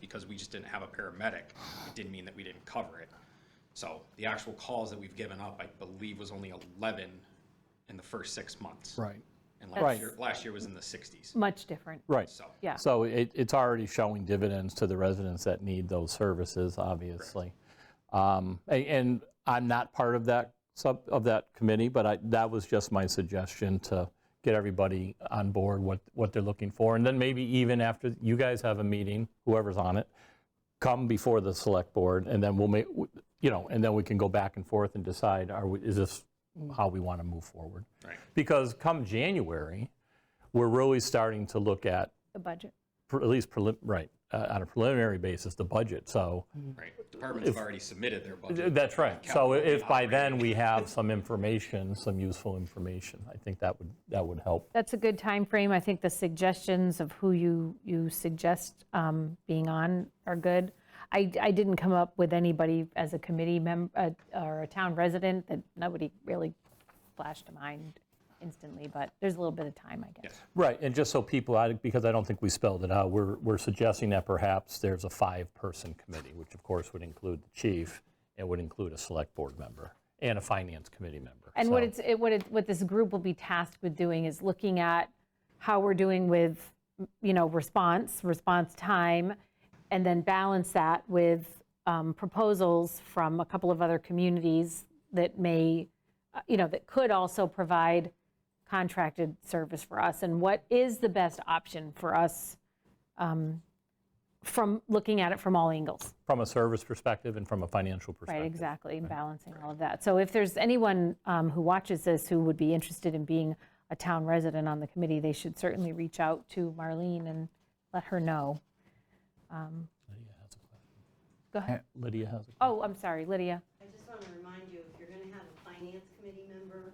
because we just didn't have a paramedic, it didn't mean that we didn't cover it. So the actual calls that we've given up, I believe, was only eleven in the first six months. Right. And last Right. year, last year was in the sixties, Much different. Right. so. Yeah. So it, it's already showing dividends to the residents that need those services, obviously. Um, a- And I'm not part of that sub, of that committee, but I, that was just my suggestion to get everybody on board what, what they're looking for. And then maybe even after you guys have a meeting, whoever's on it, come before the select board and then we'll make, you know, and then we can go back and forth and decide, are, we- is this how we want to move forward? Right. Because come January, we're really starting to look at The budget. pre- at least prelim, right, uh, on a preliminary basis, the budget, so. Right, departments have already submitted their budget. That's right. So if by then we have some information, some useful information, I think that would, that would help. That's a good time frame. I think the suggestions of who you, you suggest um, being on are good. I, I didn't come up with anybody as a committee member, or a town resident, that nobody really flashed to mind instantly, but there's a little bit of time, I guess. Right, and just so people, I- because I don't think we spelled it out, we're, we're suggesting that perhaps there's a five-person committee, which of course would include the chief, and would include a select board member, and a finance committee member. And what So- it's, it- what it, what this group will be tasked with doing is looking at how we're doing with, you know, response, response time, and then balance that with um, proposals from a couple of other communities that may, uh, you know, that could also provide contracted service for us, and what is the best option for us um, from, looking at it from all angles. From a service perspective and from a financial Right, perspective. exactly, and balancing all of that. So if there's anyone um, who watches this who would be interested in being a town resident on the committee, they should certainly reach out to Marlene and let her know. Go ahead. Lydia has a Oh, I'm sorry, Lydia. I just want to remind you, if you're going to have a finance committee member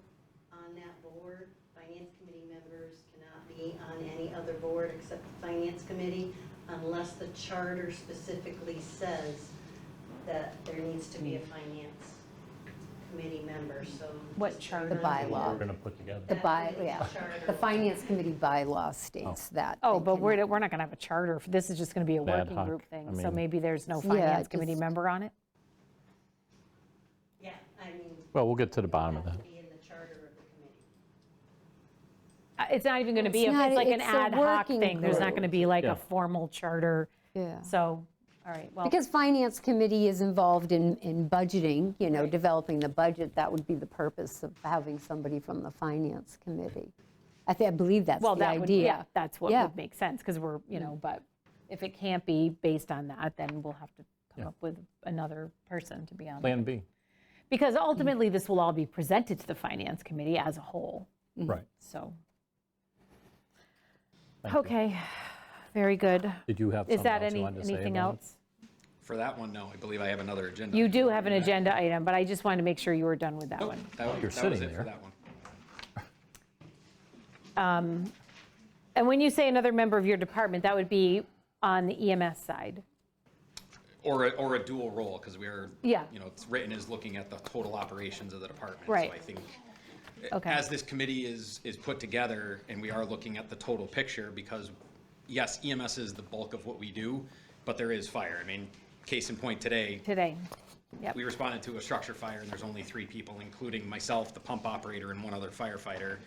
on that board, finance committee members cannot be on any other board except the finance committee unless the charter specifically says that there needs to be a finance committee member, so. What just charter? turn The on We're bylaw, going to put together. the by, That's the yeah, charter. the finance committee bylaw states that. Oh, they but can- we're, we're not going to have a charter. for- This is just going to be a ad working hoc, group I thing. So mean- maybe there's no Yeah, finance committee just- member on it? Yeah, I mean. Well, we'll get to the it bottom of has that. to be in the charter of the committee. Uh, It's not even going to be, It's a- not- it's like an it's a ad hoc working thing. There's not group. going to be like Yeah. a formal charter. Yeah. So, all right, well, Because finance committee is involved in, in budgeting, you know, developing the budget, that would be the purpose of having somebody from the finance committee. I think, I believe that's the well, idea. that would, yeah, that's what Yeah. Mm. would make sense, because we're, you know, but if it can't be based on that, then we'll have to come up with another person to be on. Plan B, Mm. Because ultimately, this will all be presented to the finance committee as a whole, right. so. Thank you. Okay, very good. Did you have Is something that else you any, wanted to say anything about it? else? For that one, no, I believe I have another agenda. You do have an agenda item, but I just wanted to make sure you were done with that one. That was- You're that was sitting it for there. that one. And when you say another member of your department, that would be on the EMS side. Or, a- or a dual role, because we are, Yeah. you know, it's written as looking at the total operations of the department. Right. So I think Okay. as this committee is, is put together and we are looking at the total picture because yes, EMS is the bulk of what we do, but there is fire. I mean, case in point today, Today, we responded to a structure fire and there's only three people, including myself, the pump operator and one other firefighter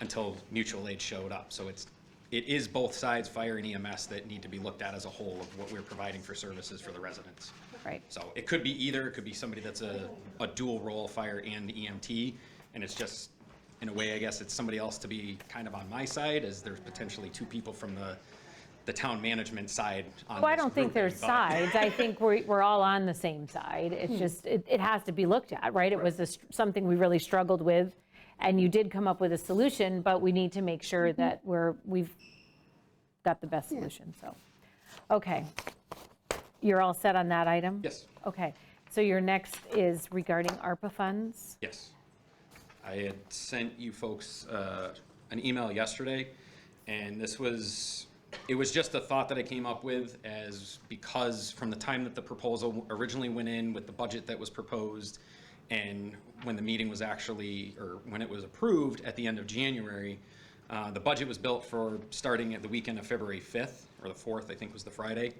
until mutual aid showed up. So it's, it is both sides, fire and EMS, that need to be looked at as a whole of what we're providing for services for the residents. right. So it could be either, it could be somebody that's a, a dual role, fire and EMT, and it's just, in a way, I guess, it's somebody else to be kind of on my side, as there's potentially two people from the, the town management side on Well, I this don't think grouping, there's but- sides. I think we're, we're all on the same side. It's just, it, it has to be looked at, right? It was a str- something we really struggled with, and you did come up with a solution, but we need to make sure that we're, we've got the best solution, so. Okay. You're all set on that item? Yes, Okay. So your next is regarding ARPA funds? yes. I had sent you folks, uh, an email yesterday, and this was, it was just a thought that I came up with as, because from the time that the proposal originally went in with the budget that was proposed, and when the meeting was actually, or when it was approved at the end of January, uh, the budget was built for starting at the weekend of February 5th, or the 4th, I think was the Friday.